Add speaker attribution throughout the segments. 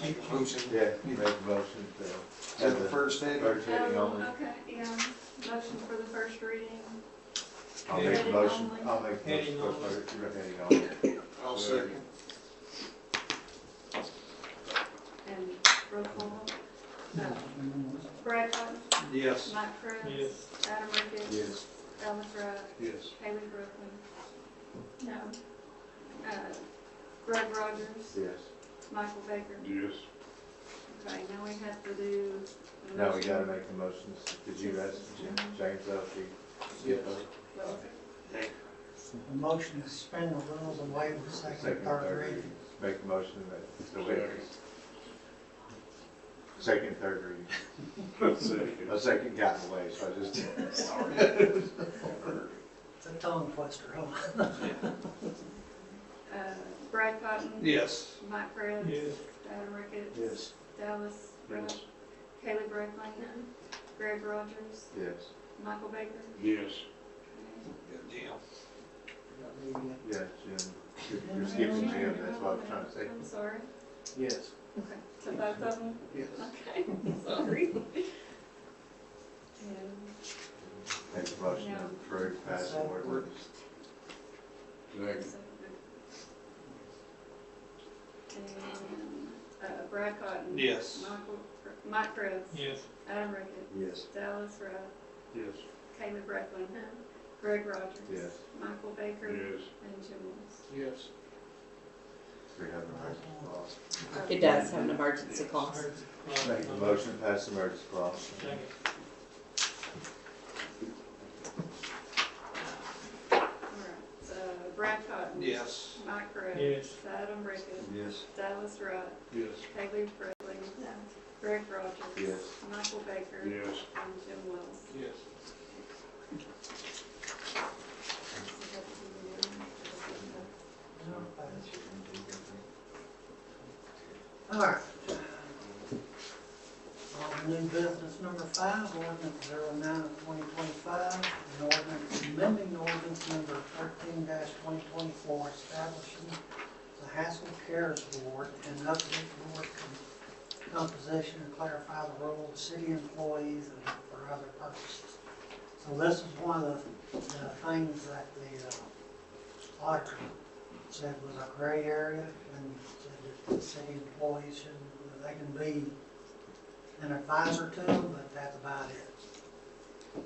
Speaker 1: Make a motion.
Speaker 2: Yeah, you make a motion
Speaker 1: Is
Speaker 2: to
Speaker 1: that
Speaker 2: have
Speaker 1: the
Speaker 2: the
Speaker 1: first thing?
Speaker 2: first reading
Speaker 3: Um,
Speaker 2: only.
Speaker 3: Okay, yeah, motion for the first reading.
Speaker 2: I'll make a
Speaker 3: Heading
Speaker 2: motion,
Speaker 3: only.
Speaker 2: I'll make a motion
Speaker 4: Heading
Speaker 2: for
Speaker 4: only.
Speaker 2: first reading only.
Speaker 1: I'll second.
Speaker 3: And roll call. Uh, Brad Cotton,
Speaker 1: Yes.
Speaker 3: Mike Cruz.
Speaker 4: Yes.
Speaker 3: Adam Ricketts.
Speaker 2: Yes.
Speaker 3: Ellis Rudd.
Speaker 1: Yes.
Speaker 3: Haley Brooklyn. No. Uh, Greg Rogers.
Speaker 2: Yes.
Speaker 3: Michael Baker.
Speaker 5: Yes.
Speaker 3: Okay, now we have to do. the
Speaker 2: Now we
Speaker 3: motion.
Speaker 2: gotta make the motions. Did you ask Jim- James Elfie? Yes.
Speaker 3: What was it?
Speaker 6: A motion to suspend the rules and waive the second and
Speaker 2: Second,
Speaker 6: third
Speaker 2: third
Speaker 6: reading.
Speaker 2: reading. Make a motion that the waivers. Second, third reading.
Speaker 5: Second.
Speaker 2: A second got in the way, so I just.
Speaker 6: It's a tongue twister, huh?
Speaker 3: Uh, Brad Cotton.
Speaker 1: Yes.
Speaker 3: Mike Cruz.
Speaker 4: Yes.
Speaker 3: Adam Ricketts.
Speaker 2: Yes.
Speaker 3: Dallas Rudd.
Speaker 1: Yes.
Speaker 3: Haley Brooklyn. Greg Rogers.
Speaker 2: Yes.
Speaker 3: Michael Baker.
Speaker 5: Yes.
Speaker 1: Jim.
Speaker 2: Yeah, Jim. You're- You're skipping Jim, that's what I was trying to say.
Speaker 3: I'm sorry.
Speaker 1: Yes.
Speaker 3: Okay, so both of them?
Speaker 1: Yes.
Speaker 3: Okay, sorry. And
Speaker 2: Make a motion to approve passing ordinance.
Speaker 5: Second.
Speaker 3: so- And, uh, Brad Cotton.
Speaker 1: Yes.
Speaker 3: Michael, Mike Cruz.
Speaker 4: Yes.
Speaker 3: Adam Ricketts.
Speaker 2: Yes.
Speaker 3: Dallas Rutt.
Speaker 5: Yes.
Speaker 3: Kayla Breckland. Greg Rogers.
Speaker 2: Yes.
Speaker 3: Michael Baker.
Speaker 5: Yes.
Speaker 3: And Jim Wells.
Speaker 1: Yes.
Speaker 2: We have an emergency clause.
Speaker 7: It does have an emergency clause.
Speaker 2: Make a motion to pass the emergency clause.
Speaker 4: Second.
Speaker 3: All right, so Brad Cotton.
Speaker 1: Yes.
Speaker 3: Mike Cruz.
Speaker 4: Yes.
Speaker 3: Adam Ricketts.
Speaker 2: Yes.
Speaker 3: Dallas Rutt.
Speaker 5: Yes.
Speaker 3: Haley Brickley. Greg Rogers.
Speaker 2: Yes.
Speaker 3: Michael Baker.
Speaker 5: Yes.
Speaker 3: And Jim Wells.
Speaker 1: Yes.
Speaker 6: All right. On new business number five, ordinance zero nine of twenty twenty-five, an ordinance amending ordinance number thirteen twenty twenty-four, establishing the Haskell Cares Board and update board com- composition and clarify the role of city employees and for other purposes. So this is one of the, the things that the uh, auditor said was a gray area and said that the city employees should, they can be an advisor to them, but that's about it.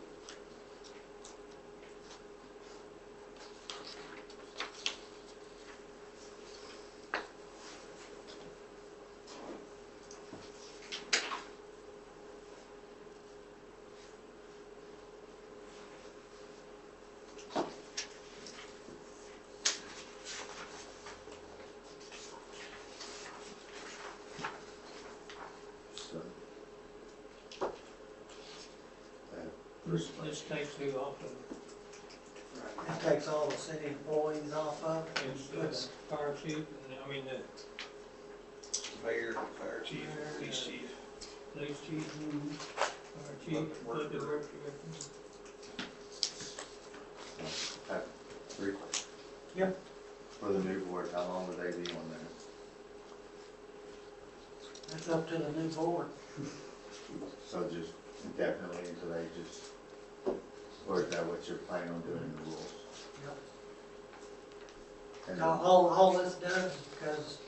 Speaker 2: So. Uh,
Speaker 4: This,
Speaker 2: Bruce,
Speaker 4: this takes you off of,
Speaker 6: That takes all the city employees off of it.
Speaker 4: it's the fire chief, and I mean, the
Speaker 1: Mayor, fire chief, police chief.
Speaker 4: police chief,
Speaker 6: Mhm.
Speaker 4: fire chief, public works director.
Speaker 2: I have three questions.
Speaker 6: Yep.
Speaker 2: For the new board, how long would they be on there?
Speaker 6: That's up to the new board.
Speaker 2: So just indefinitely until they just, or is that what you're planning on doing in the rules?
Speaker 6: Yep.
Speaker 2: And
Speaker 6: Now, all, all this does is because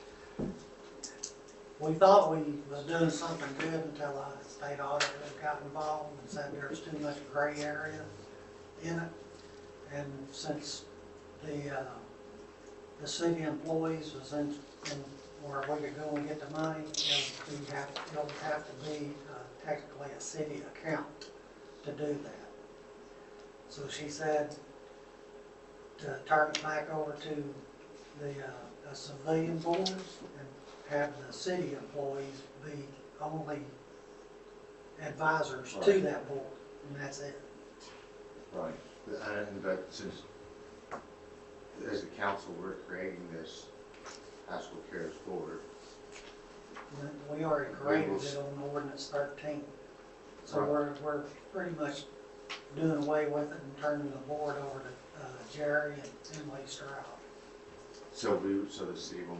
Speaker 6: we thought we was doing something good until the state auditor got involved and said there was too much gray area in it. And since the, uh, the city employees was in, in where we could go and get the money, it would be have, it would have to be uh, technically a city account to do that. So she said to turn it back over to the, uh, a civilian board and have the city employees be only advisors to
Speaker 2: Right.
Speaker 6: that board, and that's it.
Speaker 2: Right, But- and, but since, as a council, we're creating this high school cares board.
Speaker 6: We- We already graded it on ordinance thirteen. So
Speaker 2: Right.
Speaker 6: we're, we're pretty much doing away with it and turning the board over to, uh, Jerry and Emily Stroud.
Speaker 2: So we, so the city will